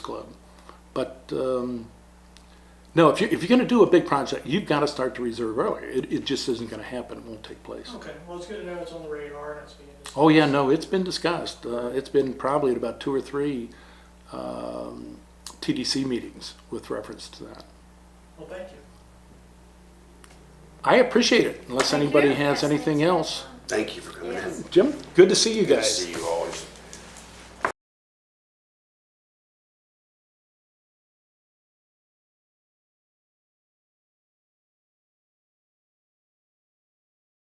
club. But um, no, if you're, if you're going to do a big project, you've got to start to reserve earlier. It, it just isn't going to happen. It won't take place. Okay, well, it's good to know it's on the radar and it's being discussed. Oh yeah, no, it's been discussed. Uh, it's been probably at about two or three um, TDC meetings with reference to that. Well, thank you. I appreciate it. Unless Thank anybody you. has anything else, Thank you for coming in. Jim, good to see you Good to guys. see you always.